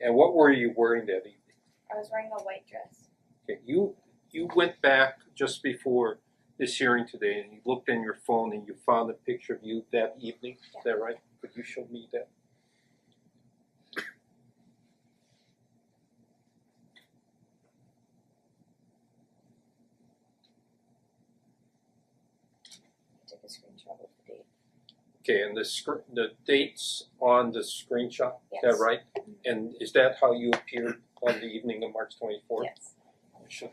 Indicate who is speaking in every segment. Speaker 1: And what were you wearing that evening?
Speaker 2: I was wearing a white dress.
Speaker 1: Okay, you you went back just before this hearing today, and you looked in your phone and you found a picture of you that evening. Is that right? Could you show me that?
Speaker 2: I took a screenshot of the date.
Speaker 1: Okay, and the scr- the dates on the screenshot. Is
Speaker 2: Yes.
Speaker 1: that right? And is that how you appeared on the evening of March twenty fourth?
Speaker 2: Yes.
Speaker 1: Show.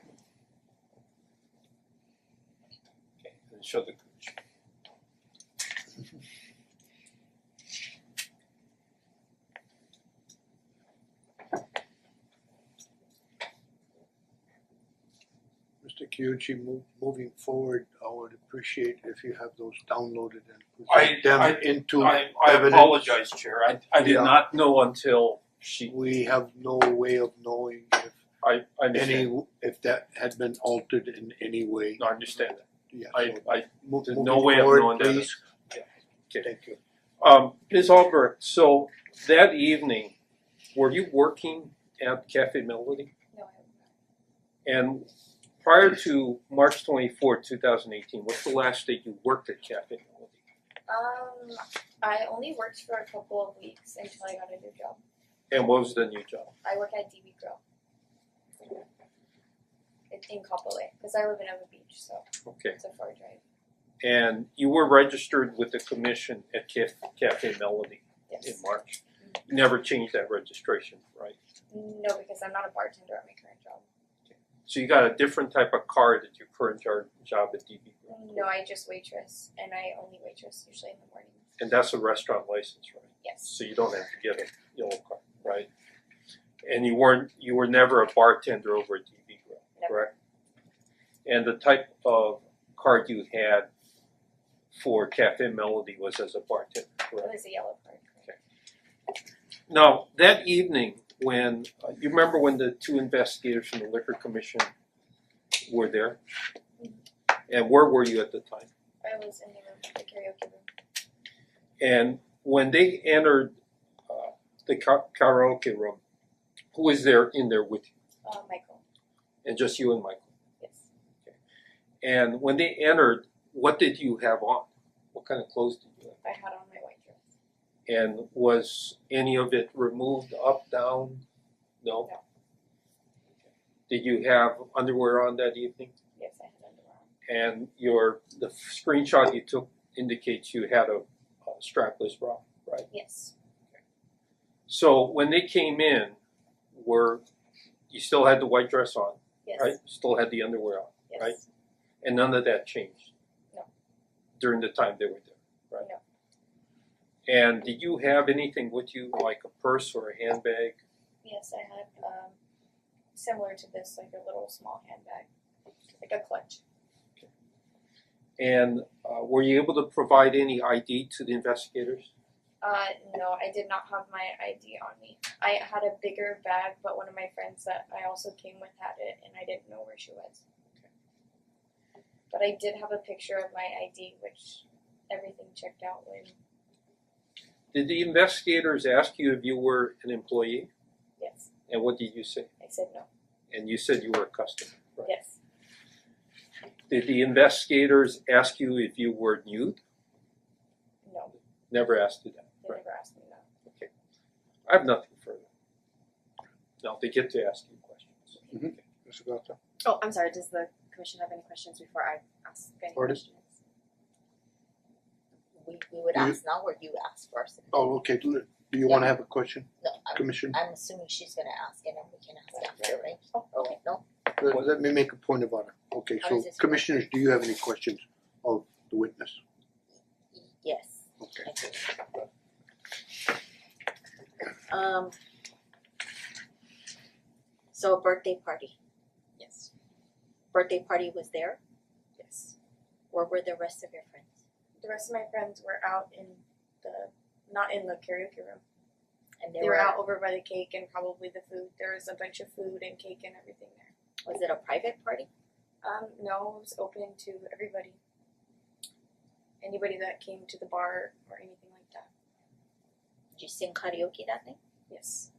Speaker 1: Okay, and show the gooch.
Speaker 3: Mr. Kyuchi, move moving forward, I would appreciate if you have those downloaded and
Speaker 4: I-
Speaker 3: put them
Speaker 4: I-
Speaker 3: into
Speaker 4: I I
Speaker 3: evidence.
Speaker 4: apologize, Chair, I I did
Speaker 3: Yeah.
Speaker 4: not,
Speaker 1: No, until she,
Speaker 3: We have no way of knowing if
Speaker 1: I I understand,
Speaker 3: any, if that had been altered in any way,
Speaker 1: No, I understand that,
Speaker 3: yeah, so
Speaker 1: I I,
Speaker 3: mo-
Speaker 1: there's
Speaker 3: moving
Speaker 1: no way of
Speaker 3: forward,
Speaker 1: knowing that.
Speaker 3: please,
Speaker 1: Okay.
Speaker 3: thank you.
Speaker 1: Um, Ms. Albert, so that evening, were you working at Cafe Melody?
Speaker 2: No, I was not.
Speaker 1: And prior to March twenty fourth, two thousand eighteen, what's the last day you worked at Cafe Melody?
Speaker 2: Um, I only worked for a couple of weeks until I got a new job.
Speaker 1: And what was the new job?
Speaker 2: I work at DB Grill. It's in Kapolei, because I live in Oak Beach, so
Speaker 1: Okay,
Speaker 2: it's a far drive.
Speaker 1: and you were registered with the commission at Caf- Cafe Melody in
Speaker 2: Yes.
Speaker 1: March? You Never changed that registration, right?
Speaker 2: No, because I'm not a bartender at my current job.
Speaker 1: So you got a different type of card at your current jar- job at DB Grill?
Speaker 2: No, I just waitress, and I only waitress usually in the morning.
Speaker 1: And that's a restaurant license, right?
Speaker 2: Yes.
Speaker 1: so you don't have to get a yellow card, right? And you weren't, you were never a bartender over at DB Grill,
Speaker 2: Never.
Speaker 1: correct? And the type of card you had for Cafe Melody was as a bartender,
Speaker 2: It
Speaker 1: correct?
Speaker 2: was a yellow card.
Speaker 1: Now, that evening, when, uh, you remember when the two investigators from the liquor commission were there? And where were you at the time?
Speaker 2: I was in the room, the karaoke room.
Speaker 1: And when they entered uh, the ka- karaoke room, who was there in there with you?
Speaker 2: Uh, Michael.
Speaker 1: and just you and Michael.
Speaker 2: Yes.
Speaker 1: And when they entered, what did you have on? What kind of clothes did you have?
Speaker 2: I had on my white dress.
Speaker 1: And was any of it removed up, down? No?
Speaker 2: No.
Speaker 1: Did you have underwear on that evening?
Speaker 2: Yes, I had underwear. on.
Speaker 1: And your, the screenshot you took indicates you had a, a strapless bra, right?
Speaker 2: Yes.
Speaker 1: So when they came in, were, you still had the white dress on,
Speaker 2: Yes.
Speaker 1: right? Still had the underwear on?
Speaker 2: Yes.
Speaker 1: right? And none of that changed?
Speaker 2: No.
Speaker 1: During the time they were there, right?
Speaker 2: No.
Speaker 1: And did you have anything with you, like a purse or a handbag?
Speaker 2: Yes, I had um similar to this, like a little small handbag, like a clutch.
Speaker 1: And uh were you able to provide any ID to the investigators?
Speaker 2: Uh, no, I did not have my ID on me. I had a bigger bag, but one of my friends that I also came with had it, and I didn't know where she was. But I did have a picture of my ID, which everything checked out when.
Speaker 1: Did the investigators ask you if you were an employee?
Speaker 2: Yes,
Speaker 1: And what did you say?
Speaker 2: I said no.
Speaker 1: And you said you were a customer, right?
Speaker 2: Yes,
Speaker 1: Did the investigators ask you if you were nude?
Speaker 2: no.
Speaker 1: Never asked you that.
Speaker 2: They never asked me no.
Speaker 1: I have nothing further. No, they get to ask you questions.
Speaker 3: Mr. Gata,
Speaker 5: Oh, I'm sorry, does the commission have any questions before I ask any
Speaker 3: Pardon?
Speaker 5: questions?
Speaker 6: we we would
Speaker 3: You-
Speaker 6: ask now or you ask first?
Speaker 3: oh, okay, do do you wanna have a question,
Speaker 6: No, I'm
Speaker 3: Commissioner?
Speaker 6: I'm assuming she's gonna ask and then we can ask after, right?
Speaker 5: Oh, okay.
Speaker 6: No,
Speaker 3: Let let me make a point about it, okay,
Speaker 6: How
Speaker 3: so
Speaker 6: does this work?
Speaker 3: commissioners, do you have any questions of the witness?
Speaker 6: yes,
Speaker 3: Okay.
Speaker 6: I do.
Speaker 5: Um,
Speaker 6: So birthday party,
Speaker 5: yes,
Speaker 6: birthday party was there,
Speaker 5: yes.
Speaker 6: where were the rest of your friends?
Speaker 2: The rest of my friends were out in the, not in the karaoke room.
Speaker 6: And
Speaker 2: They were out over by the cake and probably the food. There was a bunch of food and cake and everything there.
Speaker 6: Was it a private party?
Speaker 2: Um, no, it was open to everybody. Anybody that came to the bar or anything like that.
Speaker 6: Did you sing karaoke that night?
Speaker 2: Yes.